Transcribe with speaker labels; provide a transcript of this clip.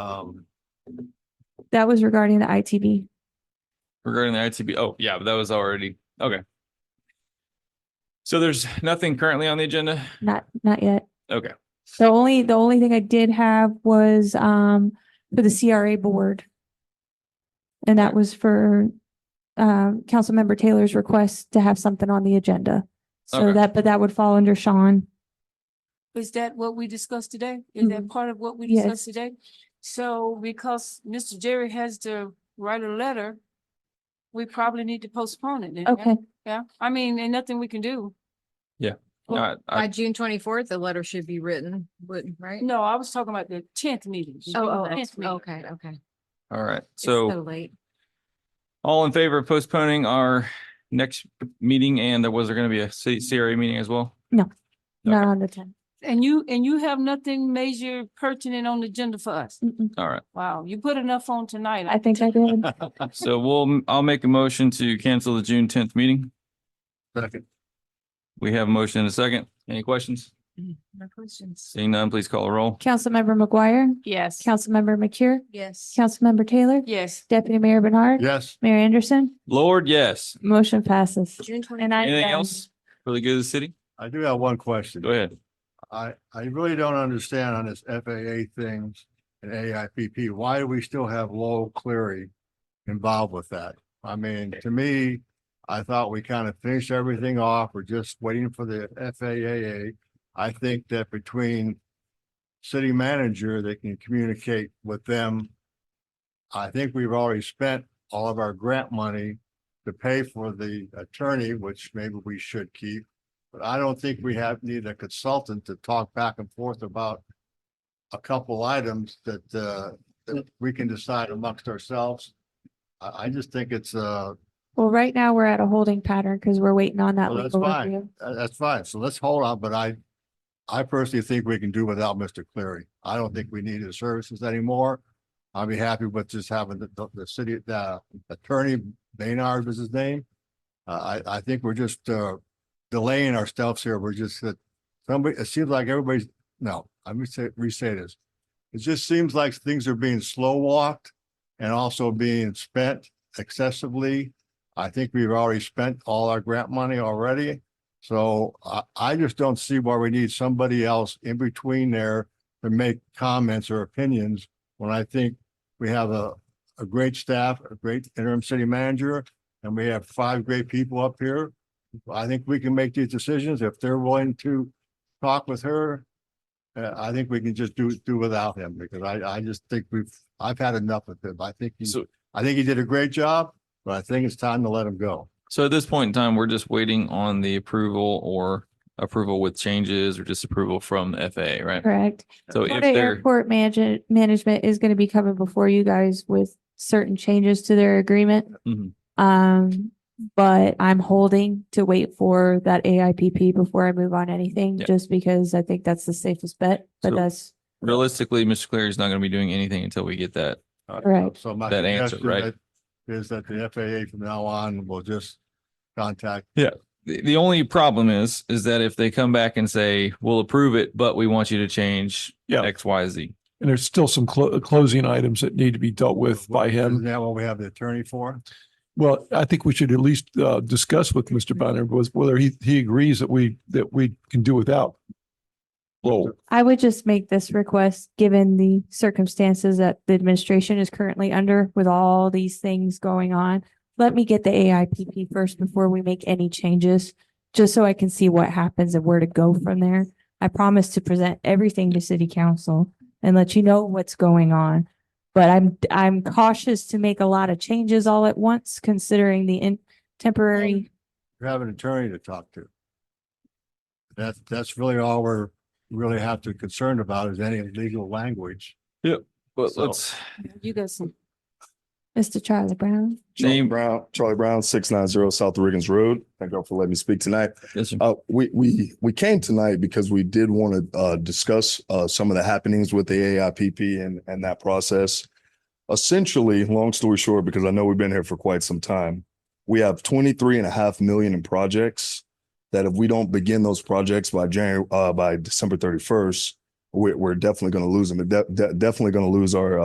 Speaker 1: Um,
Speaker 2: That was regarding the ITB.
Speaker 1: regarding the ITB, oh, yeah, but that was already, okay. So there's nothing currently on the agenda?
Speaker 2: Not, not yet.
Speaker 1: Okay,
Speaker 2: The only, the only thing I did have was, um, for the CRA board. And that was for, uh, Councilmember Taylor's request to have something on the agenda. So
Speaker 1: Okay.
Speaker 2: that, but that would fall under Sean.
Speaker 3: Is that what we discussed today? Is that part of what we
Speaker 2: Yes.
Speaker 3: discussed today? So because Mr. Jerry has to write a letter, we probably need to postpone it then. yeah?
Speaker 2: Okay,
Speaker 3: Yeah, I mean, and nothing we can do.
Speaker 1: all right,
Speaker 4: By
Speaker 1: I,
Speaker 4: June twenty-fourth, the letter should be written, would, right?
Speaker 3: No, I was talking about the tenth meeting.
Speaker 4: Oh, oh,
Speaker 3: Tenth
Speaker 4: oh,
Speaker 3: meeting.
Speaker 4: okay, okay. It's
Speaker 1: all right, so
Speaker 4: late.
Speaker 1: all in favor of postponing our next meeting and there was there gonna be a C- CRA meeting as well?
Speaker 2: not on the ten.
Speaker 3: And you, and you have nothing major pertinent on the agenda for us.
Speaker 2: Mm-mm.
Speaker 1: All right,
Speaker 3: Wow, you put enough on tonight.
Speaker 2: I think I did.
Speaker 1: so we'll, I'll make a motion to cancel the June tenth meeting. Second. We have a motion and a second. Any questions?
Speaker 4: No questions.
Speaker 1: Seeing none, please call a roll.
Speaker 2: Councilmember McGuire,
Speaker 3: Yes.
Speaker 2: Councilmember McCure,
Speaker 4: Yes.
Speaker 2: Councilmember Taylor,
Speaker 3: Yes.
Speaker 2: Deputy Mayor Bernard,
Speaker 5: Yes.
Speaker 2: Mayor Anderson,
Speaker 1: Lord, yes.
Speaker 2: motion passes.
Speaker 4: June twenty.
Speaker 2: And I. um,
Speaker 1: Anything else for the good of the city?
Speaker 5: I do have one question.
Speaker 1: Go ahead.
Speaker 5: I, I really don't understand on this FAA things and AIPP, why do we still have Lowell Cleary involved with that? I mean, to me, I thought we kind of finished everything off. We're just waiting for the FAA. I think that between city manager, they can communicate with them. I think we've already spent all of our grant money to pay for the attorney, which maybe we should keep. But I don't think we have need a consultant to talk back and forth about a couple items that, uh, that we can decide amongst ourselves. I, I just think it's, uh,
Speaker 2: Well, right now we're at a holding pattern because we're waiting on that
Speaker 5: Well, that's
Speaker 2: legal
Speaker 5: fine.
Speaker 2: review.
Speaker 5: tha- that's fine. So let's hold on, but I, I personally think we can do without Mr. Cleary. I don't think we need his services anymore. I'd be happy with just having the, the, the city, the attorney, Baynard was his name. Uh, I, I think we're just, uh, delaying our steps here. We're just that somebody, it seems like everybody's, no, I'm gonna say, re-say this. It just seems like things are being slow walked and also being spent excessively. I think we've already spent all our grant money already. So I, I just don't see why we need somebody else in between there to make comments or opinions when I think we have a, a great staff, a great interim city manager, and we have five great people up here. I think we can make these decisions if they're willing to talk with her. Uh, I think we can just do, do without him because I, I just think we've, I've had enough of him. I think, he-
Speaker 1: So,
Speaker 5: I think he did a great job, but I think it's time to let him go.
Speaker 1: so at this point in time, we're just waiting on the approval or approval with changes or disapproval from the FAA, right?
Speaker 2: Correct.
Speaker 1: So if
Speaker 2: Florida
Speaker 1: they're,
Speaker 2: Airport Management, Management is going to be coming before you guys with certain changes to their agreement.
Speaker 1: Mhm.
Speaker 2: Um, but I'm holding to wait for that AIPP before I move on anything,
Speaker 1: Yeah.
Speaker 2: just because I think that's the safest bet, but
Speaker 1: So-
Speaker 2: that's
Speaker 1: realistically, Mr. Cleary's not going to be doing anything until we get that.
Speaker 2: Right.
Speaker 5: Uh, So my
Speaker 1: That answer,
Speaker 5: suggestion
Speaker 1: right?
Speaker 5: that- is that the FAA from now on will just contact,
Speaker 1: The, the only problem is, is that if they come back and say, we'll approve it, but we want you to change
Speaker 6: Yeah.
Speaker 1: X, Y, Z.
Speaker 6: And there's still some clo- closing items that need to be dealt with by
Speaker 5: isn't
Speaker 6: him.
Speaker 5: that what we have the attorney for?
Speaker 6: Well, I think we should at least uh, discuss with Mr. Bonner was whether he, he agrees that we, that we can do without. Lowell.
Speaker 2: I would just make this request, given the circumstances that the administration is currently under with all these things going on. Let me get the AIPP first before we make any changes, just so I can see what happens and where to go from there. I promise to present everything to city council and let you know what's going on. But I'm, I'm cautious to make a lot of changes all at once, considering the in temporary.
Speaker 5: You have an attorney to talk to. That's, that's really all we're really have to concern about is any legal language.
Speaker 1: But
Speaker 5: So-
Speaker 1: let's,
Speaker 3: You got some.
Speaker 2: Mr. Charlie Brown,
Speaker 7: Charlie
Speaker 1: Name-
Speaker 7: Brown, Charlie Brown, six nine zero South Riggins Road. Thank y'all for letting me speak tonight.
Speaker 1: Yes, sir.
Speaker 7: Uh, we, we, we came tonight because we did want to, uh, discuss, uh, some of the happenings with the AIPP and, and that process. Essentially, long story short, because I know we've been here for quite some time, we have 23 and a half million in projects that if we don't begin those projects by January, uh, by December 31st, we're, we're definitely going to lose them. De- de- Definitely going to lose our,